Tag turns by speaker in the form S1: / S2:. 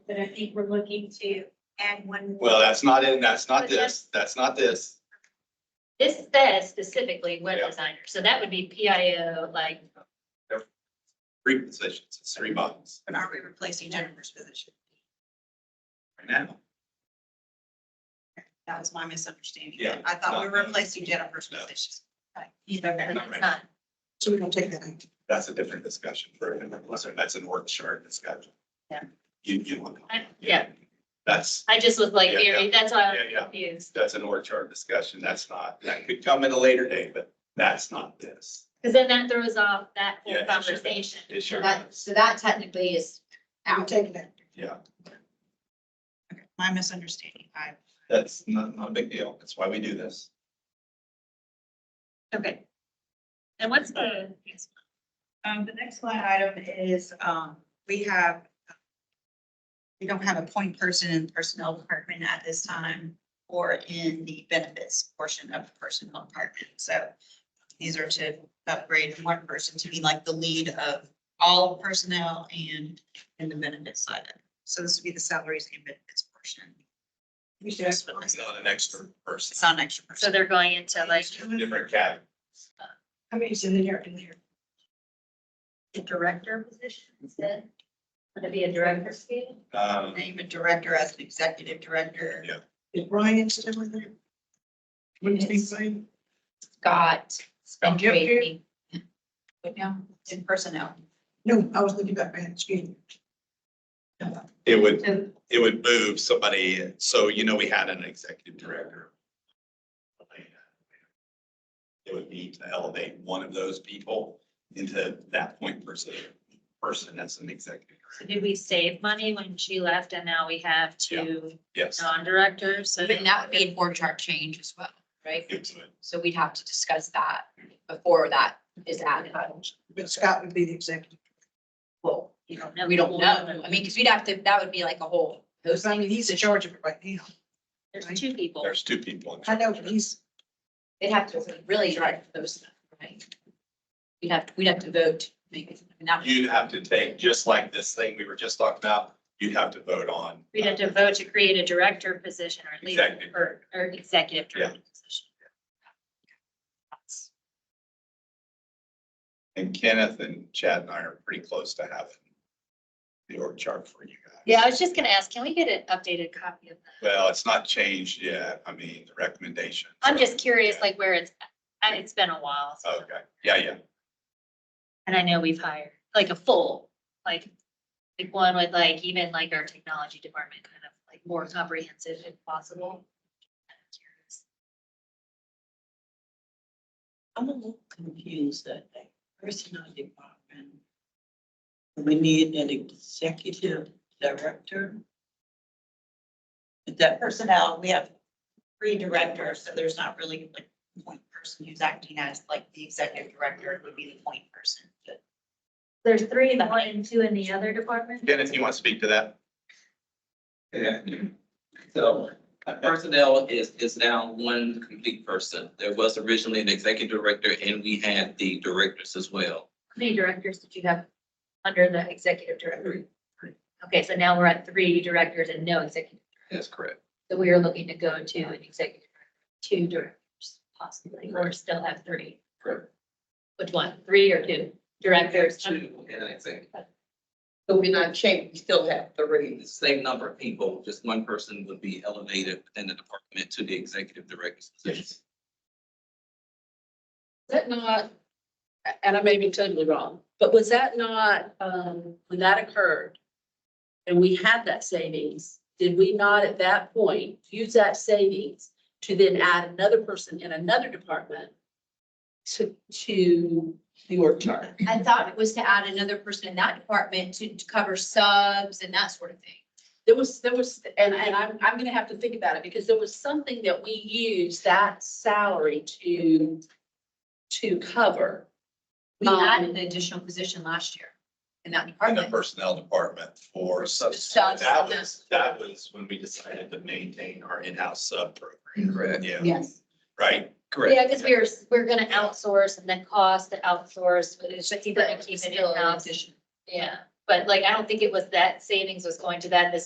S1: but I think we're looking to add one. more.
S2: Well, that's not in, that's not
S3: But
S2: this, that's not this.
S3: This says specifically web
S2: Yeah.
S3: designer, so that would be PIO, like,
S2: Three positions, it's three bodies
S4: But are we replacing Jennifer's position?
S2: right now.
S4: That was my misunderstanding.
S2: Yeah.
S4: I thought we were
S2: No.
S4: replacing Jennifer's
S2: No.
S4: position.
S3: but
S4: Okay.
S2: Not
S3: it's
S2: right.
S3: not.
S4: So we're gonna take that out.
S2: That's a different discussion for, listen, that's an org chart discussion.
S3: Yeah.
S2: You, you look.
S3: I- Yeah,
S2: That's,
S3: I just was like
S2: Yeah,
S3: very, that's why I
S2: Yeah,
S3: was
S2: yeah.
S3: confused,
S2: that's an org chart discussion. That's not, that could come at a later date, but that's not this.
S3: because then that throws off that
S2: Yeah,
S3: whole
S2: it sure does.
S3: conversation.
S2: It sure
S5: That,
S2: is.
S5: so that technically is
S4: I'm
S5: out.
S4: taking that.
S2: Yeah,
S4: Okay. My misunderstanding. I,
S2: that's not, not a big deal. That's why we do this.
S4: okay.
S3: And what's the,
S4: Um, the next line item is, um, we have, we don't have a point person in the personnel department at this time or in the benefits portion of the personnel department. So these are to upgrade one person to be like the lead of all personnel and in the benefits side of it. So this would be the salaries and benefits portion. Just for
S2: It's
S4: this.
S2: not an extra
S4: It's
S2: person,
S4: not an extra
S3: so
S4: person.
S3: they're going into like,
S2: different cat.
S4: I mean, it's in there, in there.
S3: the director position instead? Would it be a director scale?
S2: Um,
S4: Name a director as an executive director.
S2: Yeah.
S4: Is Brian still in there? What
S5: is he
S4: saying?
S5: Got.
S4: And Jim here?
S5: Tracy.
S4: But now, in personnel.
S6: No, I was looking back, man, excuse me.
S2: it would, it would move somebody. So, you know, we had an executive director. It would be to elevate one of those people into that point person, person as an executive.
S3: So Did we save money when she left and now we have two
S2: Yes.
S3: non-directors? So
S5: But then that would be an org chart change as well, right?
S2: it would.
S5: So we'd have to discuss that before that is added.
S6: But Scott would be the executive.
S5: Well,
S3: You don't know.
S5: we don't know. I mean, because we'd have to, that would be like a whole.
S6: Because I mean, he's in charge of it right now.
S3: There's two people.
S2: There's two people. in
S6: I know,
S2: charge.
S6: but he's,
S5: They'd have to really drive those, right? We'd have, we'd have to vote, maybe. I mean, that would-
S2: You'd have to take, just like this thing we were just talking about, you'd have to vote on.
S3: We'd have to vote to create a director position or at least,
S2: Executive.
S3: or, or executive
S2: Yeah.
S3: director position.
S2: And Kenneth and Chad and I are pretty close to having the org chart for you guys.
S3: Yeah, I was just gonna ask, can we get an updated copy of that?
S2: Well, it's not changed yet. I mean, the recommendation.
S3: I'm just curious, like where it's, at. it's been a while. so-
S2: Okay, yeah, yeah.
S3: And I know we've hired like a full, like, like one with like even like our technology department kind of like more comprehensive if possible.
S7: I'm a little confused that a personnel department. We need an executive director. Is that
S4: personnel, we have three directors, so there's not really like a point person who's acting as like the executive director would be the point person. but-
S3: There's three in one and two in the other department?
S2: Kenneth, you want to speak to that?
S8: Yeah. So uh, personnel is, is now one complete person. There was originally an executive director and we had the directors as well.
S3: How many directors did you have under the executive director? Okay, so now we're at three directors and no executive.
S8: That's correct.
S3: So we are looking to go to an executive, director, two directors possibly, or still have three.
S8: Correct.
S3: Which one, three or two directors?
S8: Two and an executive.
S7: So we're not changing, we still have
S8: The
S7: three.
S8: same number of people, just one person would be elevated within the department to the executive director's position.
S7: That not, and I may be totally wrong, but was that not, um, when that occurred? And we had that savings, did we not at that point use that savings to then add another person in another department? To, to the org chart?
S5: I thought it was to add another person in that department to, to cover subs and that sort of thing.
S7: There was, there was, and, and I'm, I'm gonna have to think about it, because there was something that we used that salary to, to cover. Um,
S5: We added an additional position last year in that
S2: In the
S5: department.
S2: personnel department for sub.
S5: Subs.
S2: That was, that was when we decided to maintain our in-house sub program.
S8: Correct.
S2: Yeah,
S5: Yes.
S2: right? Correct.
S3: Yeah, because we're, we're gonna outsource and then cost to outsource, but it's just either
S5: But
S3: keep it
S5: still an
S3: in-house.
S5: addition.
S3: Yeah, but like, I don't think it was that savings was going to that, the